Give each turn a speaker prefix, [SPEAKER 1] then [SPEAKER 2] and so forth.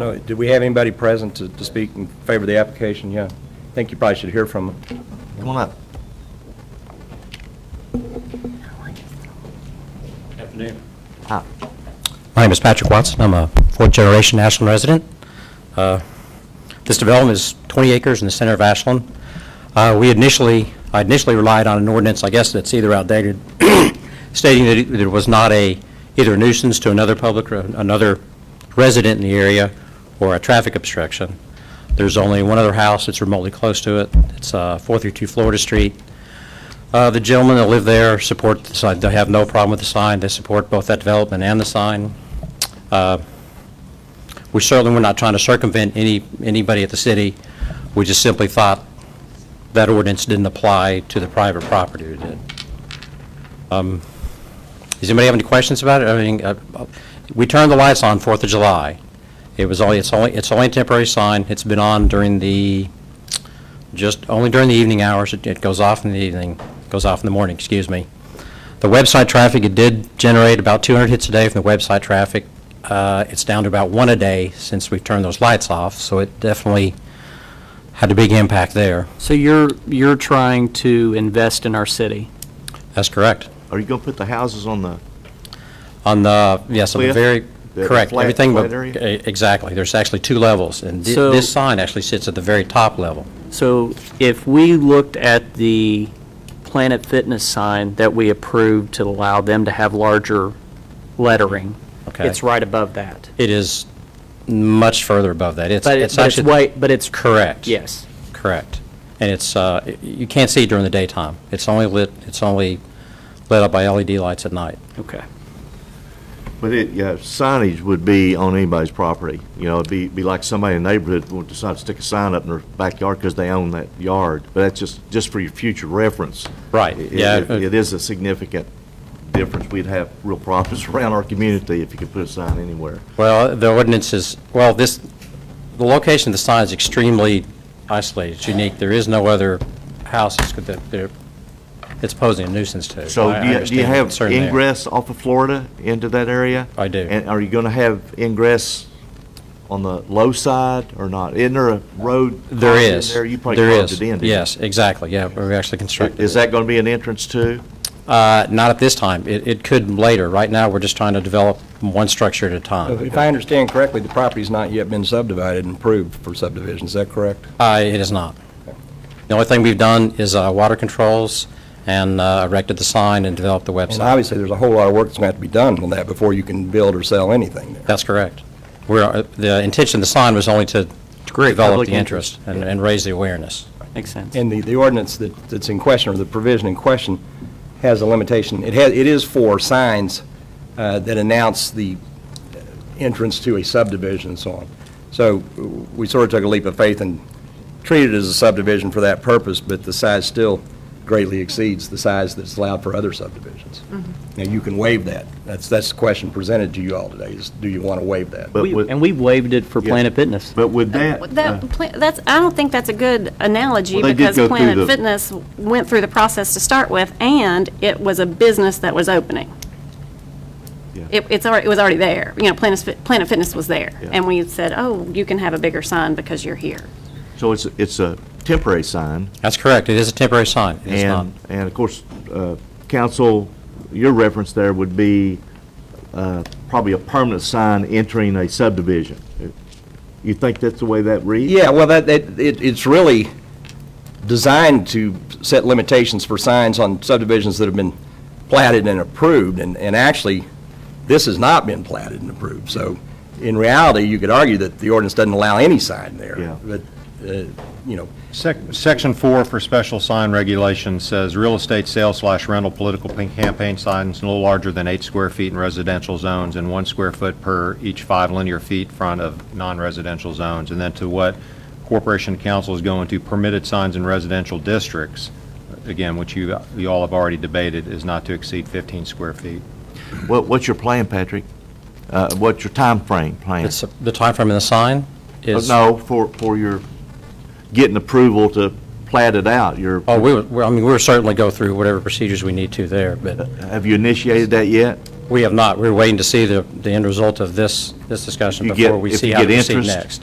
[SPEAKER 1] No, Did we have anybody present to to speak in favor of the application? Yeah. I think you probably should hear from them.
[SPEAKER 2] Come on up.
[SPEAKER 3] Afternoon.
[SPEAKER 2] Ah,
[SPEAKER 4] My name is Patrick Watson. I'm a fourth-generation Ashland resident. Uh, This development is 20 acres in the center of Ashland. Uh, We initially, I initially relied on an ordinance, I guess that's either outdated, stating that it- there was not a, either a nuisance to another public or another resident in the area or a traffic obstruction. There's only one other house that's remotely close to it. It's uh, 432 Florida Street. Uh, The gentlemen that live there support the sign, they have no problem with the sign, they support both that development and the sign. Uh, We certainly were not trying to circumvent any, anybody at the city, we just simply thought that ordinance didn't apply to the private property, it did. Um, Does anybody have any questions about it? I mean, uh, we turned the lights on Fourth of July. It was only, it's only, it's only a temporary sign, it's been on during the, just only during the evening hours. It- It goes off in the evening, goes off in the morning, excuse me. The website traffic, it did generate about 200 hits a day from the website traffic. Uh, It's down to about one a day since we've turned those lights off, so it definitely had a big impact there.
[SPEAKER 3] So you're, you're trying to invest in our city?
[SPEAKER 4] That's correct.
[SPEAKER 2] are you going to put the houses on the,
[SPEAKER 4] On the, yes, on the
[SPEAKER 2] Cliff?
[SPEAKER 4] very,
[SPEAKER 2] The
[SPEAKER 4] correct,
[SPEAKER 2] flat-
[SPEAKER 4] everything but,
[SPEAKER 2] flat area?
[SPEAKER 4] e- exactly. There's actually two levels, and thi-
[SPEAKER 3] So-
[SPEAKER 4] this sign actually sits at the very top level.
[SPEAKER 3] So if we looked at the Planet Fitness sign that we approved to allow them to have larger lettering,
[SPEAKER 4] Okay.
[SPEAKER 3] it's right above that.
[SPEAKER 4] It is much further above that. It's
[SPEAKER 3] But it-
[SPEAKER 4] it's
[SPEAKER 3] but it's
[SPEAKER 4] actually.
[SPEAKER 3] way, but it's.
[SPEAKER 4] Correct.
[SPEAKER 3] Yes.
[SPEAKER 4] Correct. And it's, uh, y- you can't see it during the daytime. It's only lit, it's only lit up by LED lights at night.
[SPEAKER 3] Okay.
[SPEAKER 2] but it, yeah, signage would be on anybody's property. You know, it'd be, be like somebody in the neighborhood would decide to stick a sign up in their backyard because they own that yard. But that's just, just for your future reference.
[SPEAKER 4] Right,
[SPEAKER 2] It-
[SPEAKER 4] yeah,
[SPEAKER 2] it-
[SPEAKER 4] uh,
[SPEAKER 2] It is a significant difference. We'd have real problems around our community if you could put a sign anywhere.
[SPEAKER 4] Well, the ordinance is, well, this, the location of the sign is extremely isolated, it's unique. There is no other houses that they're- it's posing a nuisance to. I-
[SPEAKER 2] So do
[SPEAKER 4] I
[SPEAKER 2] you- do you
[SPEAKER 4] understand the
[SPEAKER 2] have
[SPEAKER 4] concern there.
[SPEAKER 2] ingress off of Florida into that area?
[SPEAKER 4] I do.
[SPEAKER 2] And are you going to have ingress on the low side or not? Isn't there a road?
[SPEAKER 4] There
[SPEAKER 2] carved in
[SPEAKER 4] is.
[SPEAKER 2] There, you probably
[SPEAKER 4] There
[SPEAKER 2] carved
[SPEAKER 4] is.
[SPEAKER 2] it in. didn't you?
[SPEAKER 4] Yes, exactly, yeah, we actually constructed
[SPEAKER 2] Is
[SPEAKER 4] it.
[SPEAKER 2] that going to be an entrance too?
[SPEAKER 4] Uh, Not at this time, it it could later. Right now, we're just trying to develop one structure at a time.
[SPEAKER 1] If I understand correctly, the property's not yet been subdivided and approved for subdivision, is that correct?
[SPEAKER 4] Uh, It is not. The only thing we've done is uh, water controls and uh, erected the sign and developed the
[SPEAKER 1] And
[SPEAKER 4] website.
[SPEAKER 1] obviously, there's a whole lot of work that's going to have to be done on that before you can build or sell anything there.
[SPEAKER 4] That's correct. We're, uh, the intention of the sign was only to
[SPEAKER 3] create
[SPEAKER 4] develop
[SPEAKER 3] public
[SPEAKER 4] the interest and and raise the awareness.
[SPEAKER 3] Makes sense.
[SPEAKER 1] And the, the ordinance that, that's in question, or the provision in question, has a limitation. It has, it is for signs uh, that announce the entrance to a subdivision and so on. So we sort of took a leap of faith and treated it as a subdivision for that purpose, but the size still greatly exceeds the size that's allowed for other subdivisions. Now, you can waive that. That's, that's the question presented to you all today, is do you want to waive that?
[SPEAKER 2] But
[SPEAKER 3] We-
[SPEAKER 2] with-
[SPEAKER 3] And we waived it for
[SPEAKER 2] Yeah.
[SPEAKER 3] Planet Fitness.
[SPEAKER 2] But with that,
[SPEAKER 5] Uh, That, pla- that's, I don't think that's a good analogy,
[SPEAKER 2] Well, they did
[SPEAKER 5] because
[SPEAKER 2] go through the-
[SPEAKER 5] Planet Fitness went through the process to start with, and it was a business that was opening.
[SPEAKER 2] Yeah.
[SPEAKER 5] It, it's already, it was already there, you know, Planet, Fit- Planet Fitness was there,
[SPEAKER 2] Yeah.
[SPEAKER 5] and we said, oh, you can have a bigger sign because you're here.
[SPEAKER 2] so it's, it's a temporary sign.
[SPEAKER 4] That's correct. It is a temporary sign. It is not.
[SPEAKER 2] And, and of course, uh, council, your reference there would be uh, probably a permanent sign entering a subdivision. You think that's the way that reads?
[SPEAKER 1] Yeah, well, that, that, it, it's really designed to set limitations for signs on subdivisions that have been platted and approved, and, and actually, this has not been platted and approved, so in reality, you could argue that the ordinance doesn't allow any sign there.
[SPEAKER 2] Yeah.
[SPEAKER 1] But, uh, you know,
[SPEAKER 6] Sec- Section 4 for special sign regulations says, "Real estate sale slash rental political pink campaign signs no larger than eight square feet in residential zones and one square foot per each five linear feet front of non-residential zones." And then to what Corporation Council is going to, permitted signs in residential districts, again, which you, you all have already debated, is not to exceed 15 square feet.
[SPEAKER 2] What, what's your plan, Patrick? Uh, What's your timeframe plan?
[SPEAKER 4] It's, the timeframe of the sign
[SPEAKER 2] Uh,
[SPEAKER 4] is.
[SPEAKER 2] No, for, for your getting approval to plat it out, your,
[SPEAKER 4] Oh, we, would- we- I mean, we'll certainly go through whatever procedures we need to there, but
[SPEAKER 2] have you initiated that yet?
[SPEAKER 4] We have not. We're waiting to see the, the end result of this, this discussion
[SPEAKER 2] You get-
[SPEAKER 4] before we
[SPEAKER 2] if
[SPEAKER 4] see
[SPEAKER 2] you
[SPEAKER 4] how to
[SPEAKER 2] get
[SPEAKER 4] proceed
[SPEAKER 2] interest,
[SPEAKER 4] next.